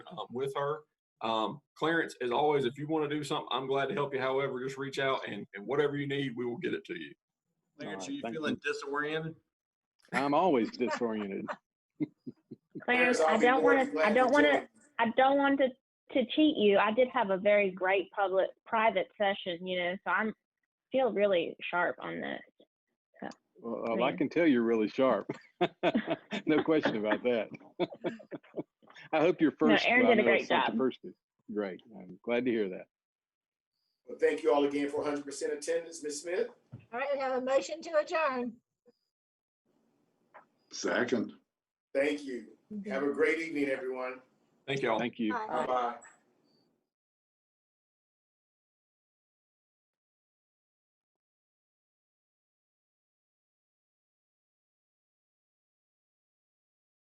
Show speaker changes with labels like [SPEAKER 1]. [SPEAKER 1] um, with her. Um, Clarence, as always, if you want to do something, I'm glad to help you. However, just reach out and, and whatever you need, we will get it to you.
[SPEAKER 2] Clarence, are
[SPEAKER 3] Alright,
[SPEAKER 2] you
[SPEAKER 3] thank
[SPEAKER 2] feeling disoriented?
[SPEAKER 3] I'm always disoriented.
[SPEAKER 4] Clarence, I don't want to, I don't want to, I don't want to, to cheat you. I did have a very great public, private session, you know, so I'm, feel really sharp on this.
[SPEAKER 3] Well, uh, I
[SPEAKER 4] Yeah.
[SPEAKER 3] can tell you're really sharp. no question about that. I hope your
[SPEAKER 4] No,
[SPEAKER 3] first.
[SPEAKER 4] Aaron
[SPEAKER 3] well, I
[SPEAKER 4] did a
[SPEAKER 3] know it's
[SPEAKER 4] great
[SPEAKER 3] not
[SPEAKER 4] job.
[SPEAKER 3] your First is great. I'm glad to hear that.
[SPEAKER 5] Well, thank you all again for 100% attendance. Ms. Smith,
[SPEAKER 6] All right, we have a motion to adjourn.
[SPEAKER 7] Second.
[SPEAKER 5] thank you. Have a great evening, everyone.
[SPEAKER 1] Thank y'all.
[SPEAKER 3] Thank you.
[SPEAKER 6] Bye.
[SPEAKER 5] Bye-bye.